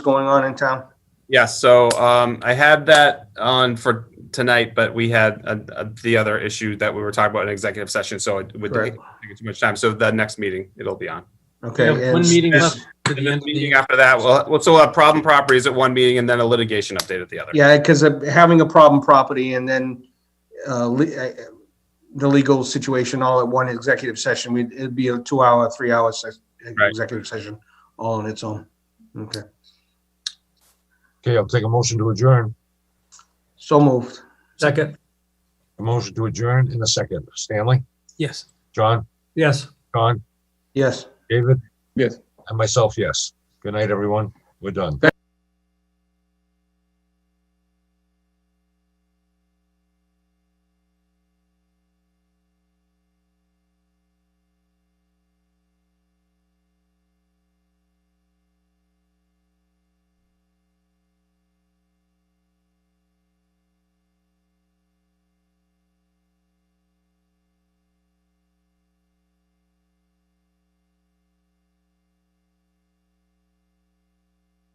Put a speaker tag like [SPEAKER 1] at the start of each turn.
[SPEAKER 1] going on in town?
[SPEAKER 2] Yeah, so um, I had that on for tonight, but we had uh, uh, the other issue that we were talking about in executive session, so it would
[SPEAKER 1] Right.
[SPEAKER 2] take take too much time. So the next meeting, it'll be on.
[SPEAKER 1] Okay.
[SPEAKER 3] We have one
[SPEAKER 1] and-
[SPEAKER 3] meeting
[SPEAKER 2] and-
[SPEAKER 3] left to
[SPEAKER 2] And
[SPEAKER 3] the
[SPEAKER 2] then
[SPEAKER 3] end of
[SPEAKER 2] the
[SPEAKER 3] the
[SPEAKER 2] meeting after that, well, we'll still have problem properties at one meeting and then a litigation update at the other.
[SPEAKER 1] Yeah, because having a problem property and then uh, le- uh, the legal situation all at one executive session, we'd- it'd be a two-hour, three-hour ses-
[SPEAKER 2] Right.
[SPEAKER 1] executive session all on its own. Okay,
[SPEAKER 4] Okay, I'll take a motion to adjourn.
[SPEAKER 1] so moved.
[SPEAKER 3] Second,
[SPEAKER 4] A motion to adjourn in a second. Stanley,
[SPEAKER 3] yes,
[SPEAKER 4] John,
[SPEAKER 3] yes.
[SPEAKER 4] John,
[SPEAKER 1] Yes.
[SPEAKER 4] David?
[SPEAKER 5] Yes.
[SPEAKER 4] And myself, yes. Good night, everyone. We're done.